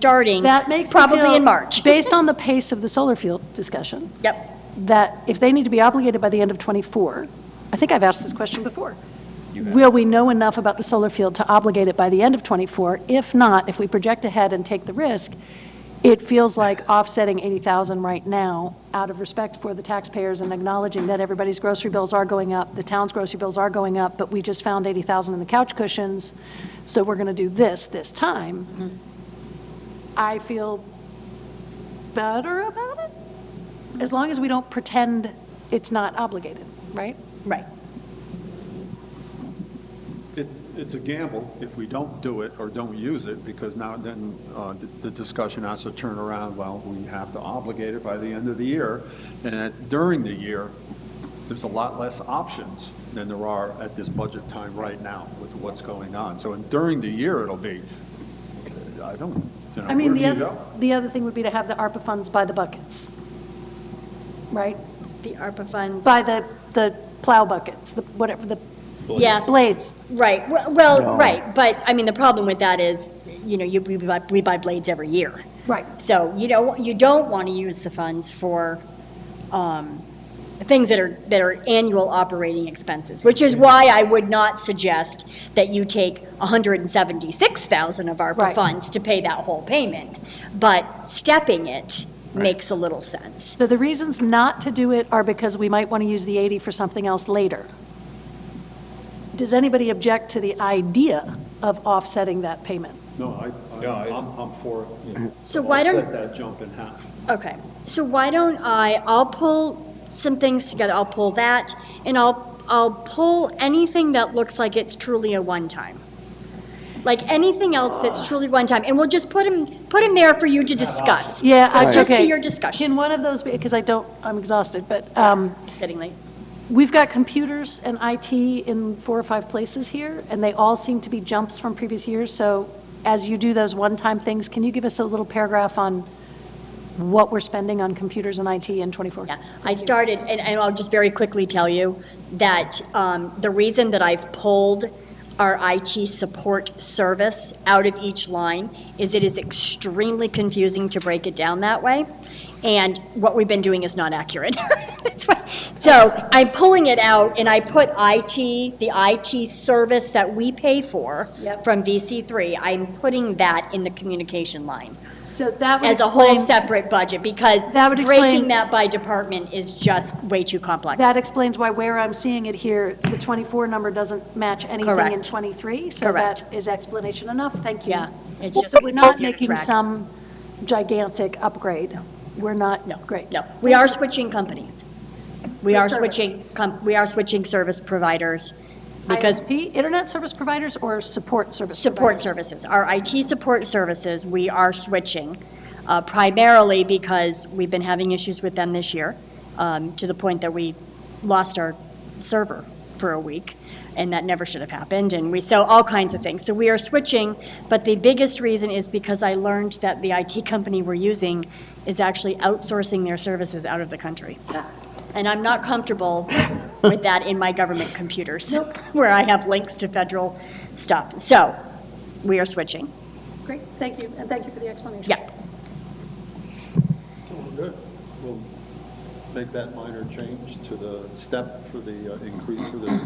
starting That makes me feel- probably in March. Based on the pace of the solar field discussion, Yep. that if they need to be obligated by the end of '24, I think I've asked this question before. Will we know enough about the solar field to obligate it by the end of '24? If not, if we project ahead and take the risk, it feels like offsetting 80,000 right now out of respect for the taxpayers and acknowledging that everybody's grocery bills are going up, the town's grocery bills are going up, but we just found 80,000 in the couch cushions, so we're going to do this this time. I feel better about it? As long as we don't pretend it's not obligated, right? Right. It's, it's a gamble if we don't do it or don't use it, because now then, uh, the- the discussion has to turn around, well, we have to obligate it by the end of the year. And at- during the year, there's a lot less options than there are at this budget time right now with what's going on. So and during the year, it'll be, uh, I don't, you know, I mean, where the do you other, go? the other thing would be to have the ARPA funds by the buckets, right? The ARPA funds. By the, the plow buckets, the, whatever, the Yeah. blades. Right, well- well, right, but, I mean, the problem with that is, you know, you, we buy, we buy blades every year. Right. So you don't, you don't want to use the funds for, um, things that are, that are annual operating expenses, which is why I would not suggest that you take hundred and seventy-six thousand of ARPA Right. funds to pay that whole payment, but stepping it makes a little sense. So the reasons not to do it are because we might want to use the 80 for something else later. Does anybody object to the idea of offsetting that payment? No, I, I- I'm, I'm for it. you know, So to why don't- offset that jump in half. Okay, so why don't I, I'll pull some things together, I'll pull that, and I'll, I'll pull anything that looks like it's truly a one-time. Like anything else that's truly one-time, and we'll just put them, put them there for you to discuss. Yeah, I, It'll just be okay. your discussion, Can one of those be, because I don't, I'm exhausted, but, um, It's getting late. We've got computers and IT in four or five places here, and they all seem to be jumps from previous years. So as you do those one-time things, can you give us a little paragraph on what we're spending on computers and IT in '24? Yeah, I started, and, and I'll just very quickly tell you that um, the reason that I've pulled our IT support service out of each line is it is extremely confusing to break it down that way, and what we've been doing is not accurate. That's why, so I'm pulling it out, and I put IT, the IT service that we pay for Yep. from VC3, I'm putting that in the communication line So that would as a whole explain, separate budget, because That would breaking explain- that by department is just way too complex. that explains why where I'm seeing it here, the '24 number doesn't match anything in Correct. '23. So Correct. that is explanation enough, thank you. Yeah, it's So just We're not easier to making track. some gigantic upgrade. We're not, No, great. no. We are switching companies. We For are service. switching, com- we are switching service providers, because ISP, internet service providers or support service support providers? services, our IT support services, we are switching, uh, primarily because we've been having issues with them this year, um, to the point that we lost our server for a week, and that never should have happened, and we, so all kinds of things. So we are switching, but the biggest reason is because I learned that the IT company we're using is actually outsourcing their services out of the country. And I'm not comfortable with that in my government computers, where I have links to federal stuff. So we are switching. Great, thank you, and thank you for the explanation. Yeah. So we're good. We'll make that minor change to the step for the uh, increase for the Okay.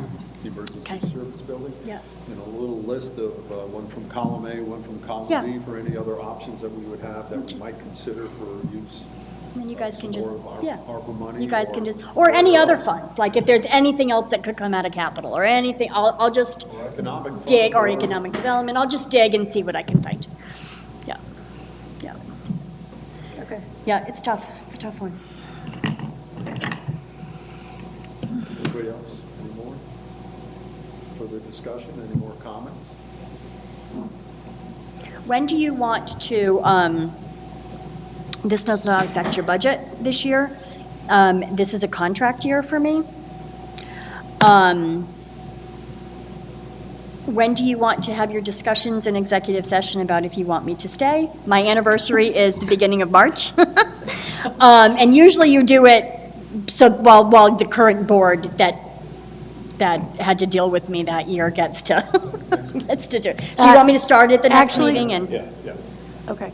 emergency service building. Yeah. And a little list of, uh, one from column A, one from Yeah. column B, for any other options that we would have that Which we is- might consider for use. Uh, And then you guys can Some just, more of our- yeah. ARPA money You guys can or- just, or any other or- funds, like if there's anything else that could come out of capital or anything, I'll, I'll just Or economic. fund dig, or economic development, I'll just dig and see what I can find. Yeah, yeah. Okay. Yeah, it's tough, it's a tough one. Anybody else, any more? Further discussion, any more comments? When do you want to, um, this does not affect your budget this year. Um, This is a contract year for me. Um, When do you want to have your discussions in executive session about if you want me to stay? My anniversary is the beginning of March. Um, And usually you do it, so while, while the current board that, that had to deal with me that year gets to, gets to do. it. So you want me to start at the next Actually- meeting and? Yeah, yeah. Okay,